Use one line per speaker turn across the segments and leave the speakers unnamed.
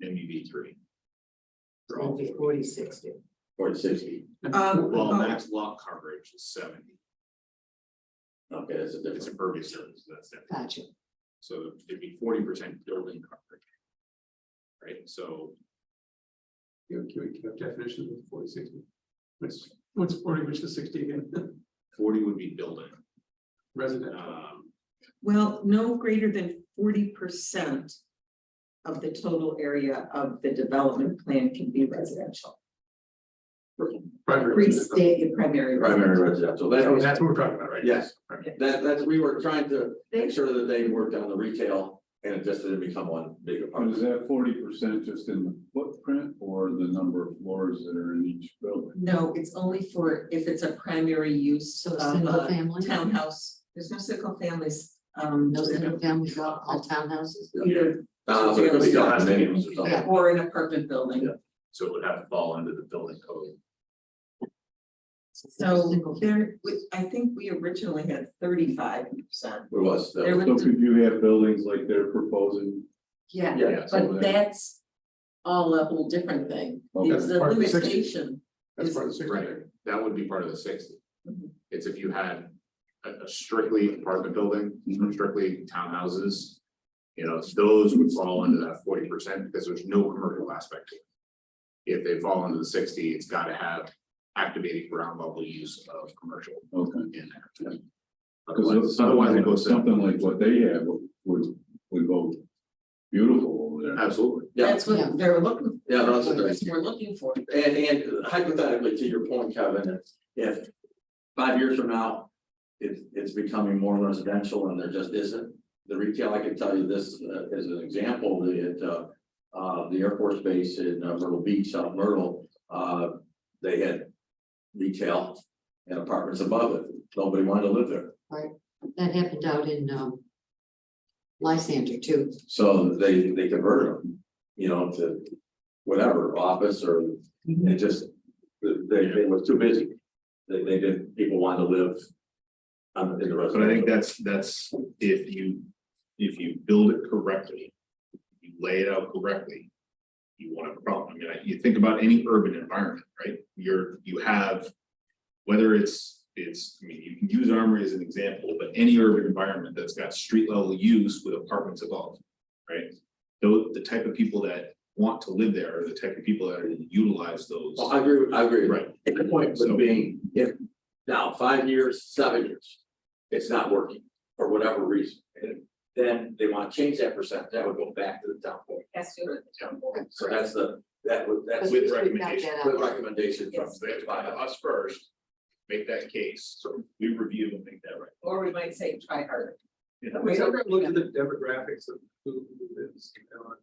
B three. For all
It'll be
four,
forty sixty.
or sixty,
Um,
well,
um,
max lot coverage is seventy,
Okay, that's a
it's
difference.
a burby service, that's it,
Gotcha.
so it'd be forty percent building coverage. Right, so
You know, can we have definitions of forty sixty? What's, what's forty, which is sixty again,
forty would be building,
resident,
um,
well, no greater than forty percent. Of the total area of the development plan can be residential,
primary residence.
restate your primary
Primary
residence.
residential,
Oh,
that,
That's what we're talking about, right?
Yes.
Right.
that, that's, we were trying to
They-
make sure that they worked on the retail and it just didn't become one big
Is
apartment.
that forty percent just in the footprint or the number of floors that are in each building?
No, it's only for if it's a primary use
So
of
Uh,
single
a
family,
townhouse, there's no single families, um.
no single families, all, all townhouses.
Either,
Uh, so it could be condominiums or something.
yeah, or an apartment building,
Yeah.
so it would have to fall under the building code.
so
Single-
there, we- I think we originally had thirty-five percent.
It was, that
There
was-
was-
So could you have buildings like they're proposing?
Yeah,
yeah, so
but that's all a whole different thing,
Okay.
it's the
Part of the sixty.
limitation.
That's part of the sixty.
Right, that would be part of the sixty.
Mhm.
It's if you had a a strictly apartment building,
Mhm.
or strictly townhouses. You know, those would fall under that forty percent because there's no commercial aspect to it. If they fall under the sixty, it's gotta have activated ground level use of commercial
Okay.
in
Yeah.
there. Otherwise, otherwise it goes to,
Something like what they have would, would go beautiful over there.
absolutely,
yeah,
That's what they're looking,
yeah, no, that's a difference.
that's what we're looking for.
And, and hypothetically, to your point, Kevin, if, if five years from now, it's, it's becoming more residential and there just isn't. The retail, I can tell you this uh, as an example, the, uh, uh, the Air Force Base in uh, Myrtle Beach, South Myrtle, uh, they had retail and apartments above it. Nobody wanted to live there.
That happened out in, um, Lysander too.
So they, they converted them, you know, to whatever, office or
Mhm.
It just, they, they were too busy. They, they didn't, people wanted to live. Um, in the rest.
but I think that's, that's if you, if you build it correctly. You lay it out correctly. You won't have a problem, I mean, I- you think about any urban environment, right, you're, you have. Whether it's, it's, I mean, you can use Armory as an example, but any urban environment that's got street level use with apartments above, right? Though the type of people that want to live there are the type of people that are gonna utilize those,
Well, Oh, I agree, with- I agree. with
right,
that. The point
So-
would be, if now five years, seven years, it's not working for whatever reason. and Then they want to change that percent, that would go back to the town board.
Has to.
So that's the, that would,
But
that's the
With
we've got
recommendation.
that out.
recommendation from.
Yes.
So they have to come to us first, make that case, so we review and make that right.
Or we might say try harder.
Yeah.
Have we ever looked at the demographics of who lives on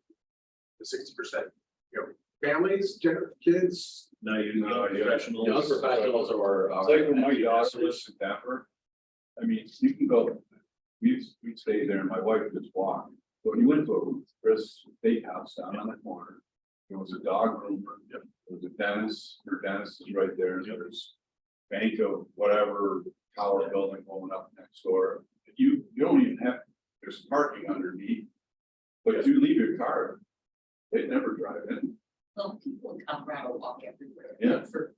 the sixty percent? You know, families, gen- kids,
Now you know,
No, yeah.
professionals.
Those professionals are, are.
It's like when my daughter lives in Denver. I mean, you can go, we, we stay there and my wife just walked. But you went to a Chris Steakhouse down on the corner. There was a dog room, there was a dentist, your dentist is right there, there's bank of whatever tower building going up next door. You, you don't even have, there's parking underneath. But you leave your car, they never drive in.
Well, people in Colorado walk everywhere.
Yeah.
For-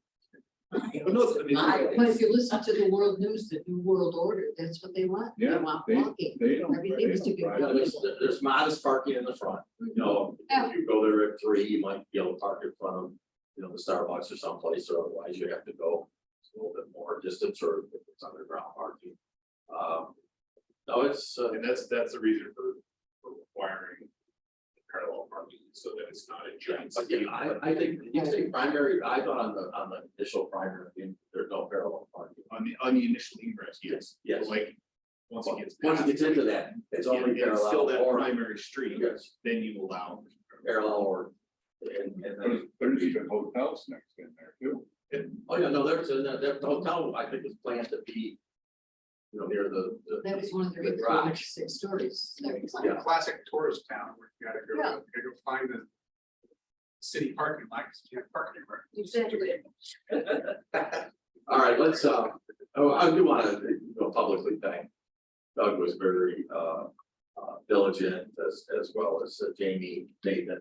But if you listen to the world news, the new world order, that's what they want. They
Yeah,
want
they-
walking.
They don't.
Everything's to be
drive.
You know, there's, there's modest parking in the front, you know, if you go there at three, you might be able to park in front of, you know, the Starbucks or someplace, or otherwise you have to go. A little bit more distance or if it's underground parking. Um, no, it's, uh,
And that's, that's the reason for, for requiring parallel parking, so that it's not a giant.
again, I, I think, you say primary, I thought on the, on the initial primary, there's no parallel parking.
On the, on the initial ingress, yes.
Yes.
Like, once it gets.
Once it gets into that,
It's
it's
only
only
still
parallel
that
or,
primary street,
yes,
then you allow.
parallel or. And, and then
There's, there's even hotels next in there too.
Oh, yeah, no, there's a, there- the hotel, I think is planned to be. You know, near the, the.
That was one of the
The
reasons we went to six stories.
it's like a classic tourist town where you gotta go, you gotta go find the. City parking lot, 'cause you can't park anywhere.
Exactly.
All right, let's, uh, oh, I do wanna, you know, publicly thank. Doug was very, uh, uh, diligent as, as well as uh, Jamie, Nathan,